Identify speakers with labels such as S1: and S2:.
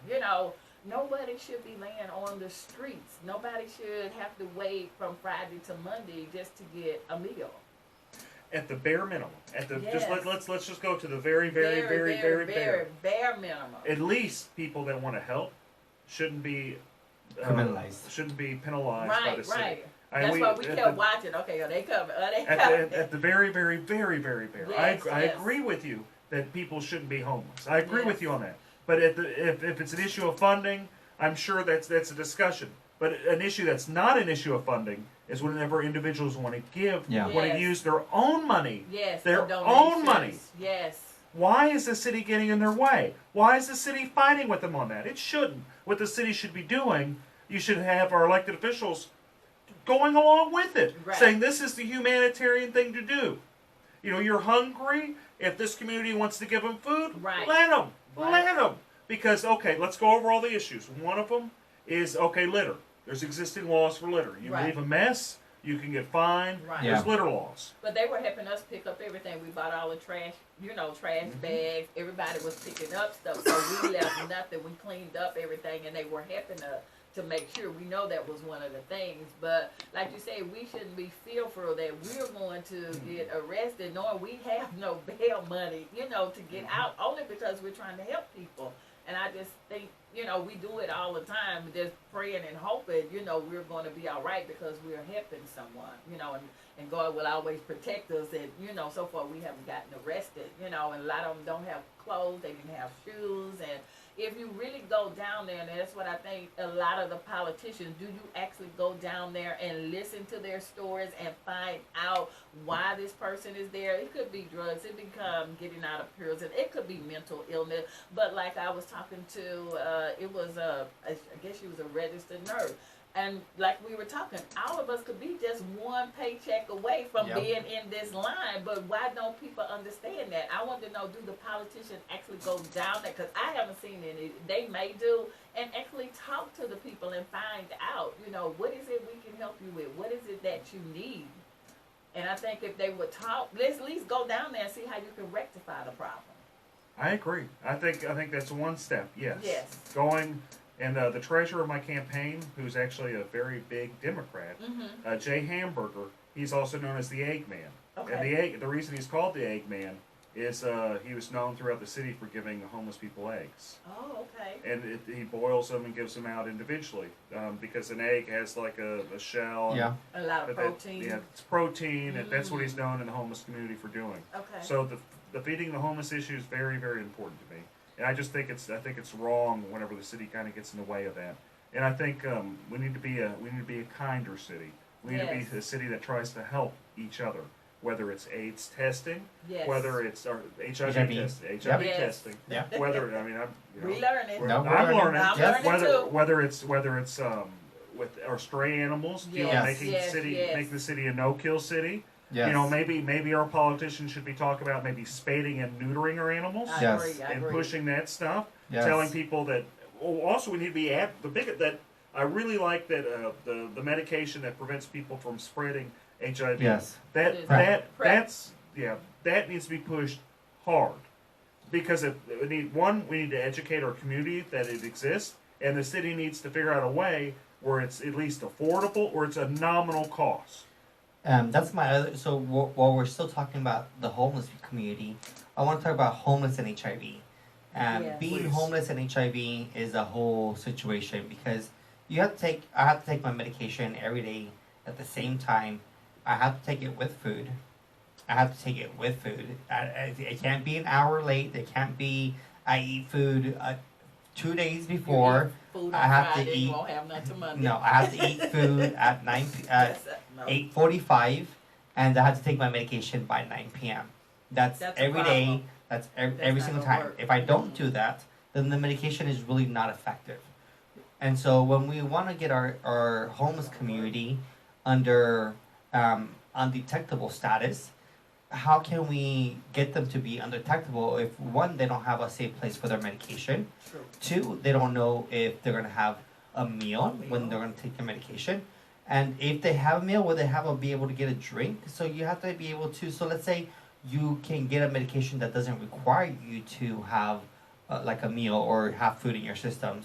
S1: So nobody should be laying on the streets. Nobody should have to wait from Friday to Monday just to get a meal.
S2: At the bare minimum, at the just
S1: Yes.
S2: let, let's let's just go to the very very very very, bare.
S1: bare, bare minimum.
S2: At least people that want to help shouldn't be uh,
S3: Criminalized.
S2: Shouldn't be penalized by the
S1: right,
S2: city.
S1: right.
S2: I-
S1: That's why we
S2: at
S1: kept
S2: the-
S1: watching. Okay, are they coming? Are they
S2: at the,
S1: coming?
S2: at, at the very, very, very, very bare.
S1: Yes,
S2: I, I
S1: yes.
S2: agree with you that people shouldn't be homeless. I agree
S1: Yes.
S2: with you on that. But at the, if, if it's an issue of funding, I'm sure that's that's a discussion. But an issue that's not an issue of funding is whenever individuals want to give,
S3: Yeah.
S2: want
S1: Yes.
S2: to use their own money.
S1: yes,
S2: their
S1: the
S2: own money.
S1: donations. Yes.
S2: Why is the city getting in their way? Why is the city fighting with them on that? It shouldn't. What the city should be doing, you should have our elected officials going along with it,
S1: Right.
S2: saying this is the humanitarian thing to do. You know, you're hungry. If this community wants to give them food,
S1: Right.
S2: let them.
S1: Right.
S2: Let them. Because, okay, let's go over all the issues. One of them is, okay, litter. There's existing laws for litter. You
S1: Right.
S2: leave a mess, you can get fined.
S1: Right.
S3: Yeah.
S2: There's litter laws.
S1: But they were helping us pick up everything. We bought all the trash, you know, trash bags. Everybody was picking up stuff, so we left nothing. We cleaned up everything, and they were helping us to make sure. We know that was one of the things. But like you say, we shouldn't be fearful that we're going to get arrested, knowing we have no bail money, you know, to get out only because we're trying to help people. And I just think, you know, we do it all the time, just praying and hoping, you know, we're going to be all right because we're helping someone, you know, and, and God will always protect us. And, you know, so far we haven't gotten arrested, you know, and a lot of them don't have clothes, they didn't have shoes. And if you really go down there, and that's what I think a lot of the politicians do, you actually go down there and listen to their stories and find out why this person is there. It could be drugs, it become getting out of prison, it could be mental illness. But like I was talking to, uh, it was a, I guess she was a registered nurse. And like we were talking, all of us could be just one paycheck away from
S3: Yep.
S1: being in this line. But why don't people understand that? I want to know: Do the politicians actually go down there? Because I haven't seen any. They may do, and actually talk to the people and find out. You know, what is it we can help you with? What is it that you need? And I think if they would talk, let's at least go down there and see how you can rectify the problem.
S2: I agree. I think I think that's one step. Yes.
S1: Yes.
S2: Going and uh, the treasurer of my campaign, who's actually a very big Democrat,
S1: Mm-hmm.
S2: uh, Jay Hamburger. He's also known as the Eggman. And
S1: Okay.
S2: the egg, the reason he's called the Eggman is uh, he was known throughout the city for giving homeless people eggs,
S1: Oh, okay.
S2: and it, he boils them and gives them out individually um, because an egg has like a, a shell. and-
S3: Yeah.
S1: A lot of
S2: but that-
S1: protein. Mm-hmm.
S2: yeah, it's protein, and that's what he's known in the homeless community for doing.
S1: Okay.
S2: So the, the feeding the homeless issue is very, very important to me, and I just think it's I think it's wrong whenever the city kind of gets in the way of that. And I think um, we need to be a we need to be a kinder city. We need
S1: Yes.
S2: to be a city that tries to help each other, whether it's AIDS testing,
S1: yes.
S2: whether it's or HIV,
S3: HIV.
S2: testing, HIV
S1: Yes.
S2: testing,
S3: Yeah.
S2: whether I mean I'm you know,
S1: Relearn it.
S2: we're-
S3: No, we're
S2: I'm
S3: learning.
S2: learning,
S1: I'm
S3: Yes.
S1: learning
S2: whether
S1: too.
S2: whether it's whether it's um, with or stray animals, you know,
S1: Yes,
S2: making
S1: yes,
S2: the city
S1: yes.
S2: make the city a no kill city.
S3: Yes.
S2: You know, maybe maybe our politicians should be talking about maybe spading and neutering our animals
S1: I
S3: Yes.
S1: agree, I
S2: and
S1: agree.
S2: pushing that stuff.
S3: Yes.
S2: Telling people that. Oh, also, we need to be at the big that. I really like that uh, the the medication that prevents people from spreading
S1: It
S2: HIV.
S3: Yes.
S1: is
S2: That
S1: Right.
S2: that
S1: PrEP.
S2: that's yeah that needs to be pushed hard because if we need one we need to educate our community that it exists and the city needs to figure out a way where it's at least affordable or it's a nominal cost.
S3: Um, that's my other. So wh- while we're still talking about the homeless community, I want to talk about homeless and HIV. Um,
S1: Yes.
S3: Being
S2: Please.
S3: homeless and HIV is a whole situation because you have to take. I have to take my medication every day at the same time. I have to take it with food. I have to take it with food. I, I, it can't be an hour late. It can't be I eat food uh, two days
S1: You eat
S3: before.
S1: food
S3: I
S1: on
S3: have to
S1: Friday, you
S3: eat-
S1: won't have nothing Monday.
S3: No, I have to eat food at nine. P- at
S1: That's a- no.
S3: eight forty five, and I have to take my medication by nine p.m. That's,
S1: That's a
S3: every day.
S1: problem.
S3: That's every,
S1: That's
S3: every
S1: not
S3: single
S1: gonna
S3: time.
S1: work.
S3: If I don't
S1: Mhm.
S3: do that, then the medication is really not effective. And so when we want to get our, our homeless community under um, undetectable status, how can we get them to be undetectable if one they don't have a safe place for their medication,
S1: True.
S3: Two, they don't know if they're gonna have a meal when they're gonna take their medication, and if they have a meal, will they have a, be able to get a drink? So you have to be able to. So let's say you can get a medication that doesn't require you to have uh, like a meal or have food in your system.